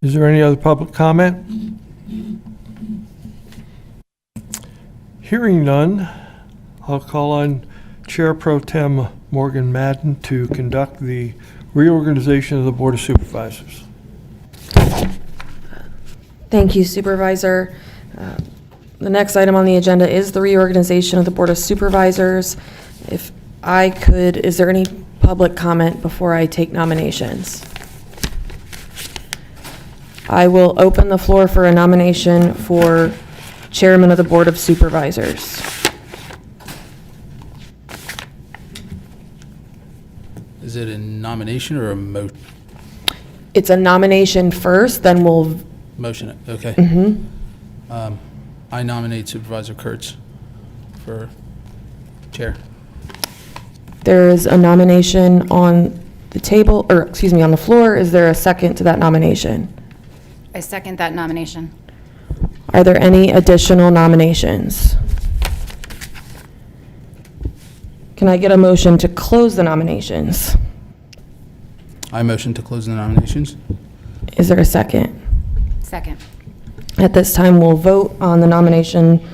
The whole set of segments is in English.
Is there any other public comment? Hearing none, I'll call on Chair Pro Tem Morgan Madden to conduct the reorganization of the Board of Supervisors. Thank you Supervisor. Uh, The next item on the agenda is the reorganization of the Board of Supervisors. If I could, is there any public comment before I take nominations? I will open the floor for a nomination for Chairman of the Board of Supervisors. Is it a nomination or a mo- It's a nomination first, then we'll, motion? Okay. Um, I nominate Supervisor Kurtz for chair. there is a nomination on the table, or excuse me, on the floor. Is there a second to that nomination? I second that nomination. Are there any additional nominations? Can I get a motion to close the nominations? I motion to close the nominations. Is there a second? Second. At this time, we'll vote on the nomination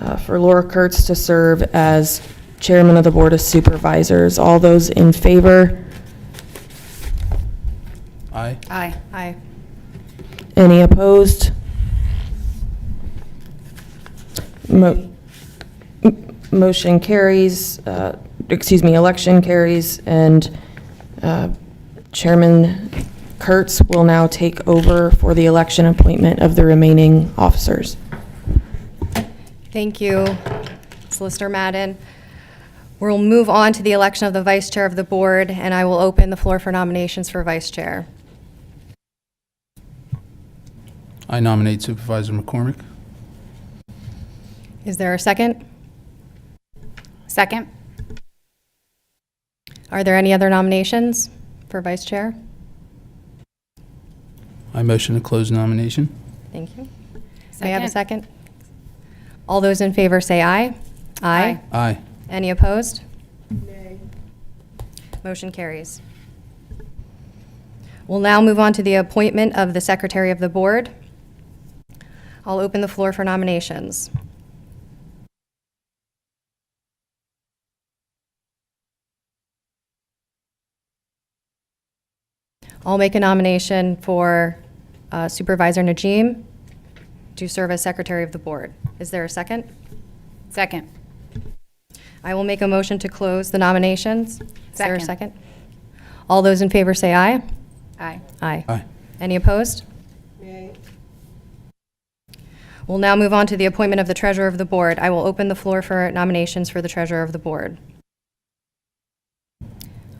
uh, for Laura Kurtz to serve as Chairman of the Board of Supervisors. All those in favor? Aye. Aye. Aye. Any opposed? Mo- m- Motion carries, uh, excuse me, election carries, and uh, Chairman Kurtz will now take over for the election appointment of the remaining officers. Thank you, Solicitor Madden. We'll move on to the election of the Vice Chair of the Board, and I will open the floor for nominations for Vice Chair. I nominate Supervisor McCormick. Is there a second? Second. Are there any other nominations for Vice Chair? I motion to close nomination. Thank you. May I have a second? All those in favor say aye. Aye. Aye. Any opposed? Nay. Motion carries. We'll now move on to the appointment of the Secretary of the Board. I'll open the floor for nominations. I'll make a nomination for uh, Supervisor Najim to serve as Secretary of the Board. Is there a second? Second. I will make a motion to close the nominations. Is there a Second. second? All those in favor say aye. Aye. Aye. Aye. Any opposed? We'll now move on to the appointment of the treasurer of the board. I will open the floor for nominations for the treasurer of the board.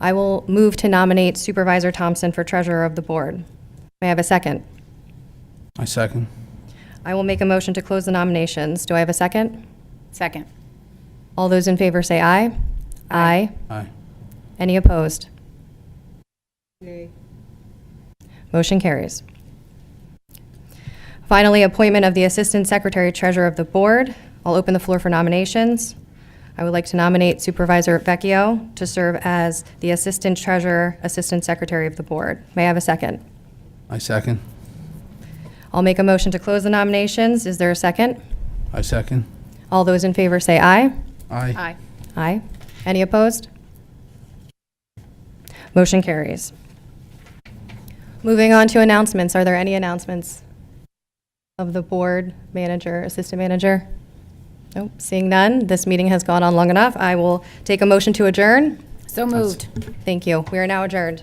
I will move to nominate Supervisor Thompson for treasurer of the board. May I have a second? I second. I will make a motion to close the nominations. Do I have a second? Second. All those in favor say aye. Aye. Aye. Any opposed? Motion carries. Finally, appointment of the Assistant Secretary Treasurer of the Board. I'll open the floor for nominations. I would like to nominate Supervisor Vecchio to serve as the Assistant Treasurer, Assistant Secretary of the Board. May I have a second? I second. I'll make a motion to close the nominations. Is there a second? I second. All those in favor say aye. Aye. Aye. Aye. Any opposed? Motion carries. Moving on to announcements, are there any announcements of the board, manager, assistant manager? Nope, seeing none, this meeting has gone on long enough. I will take a motion to adjourn. So moved. Thank you, we are now adjourned.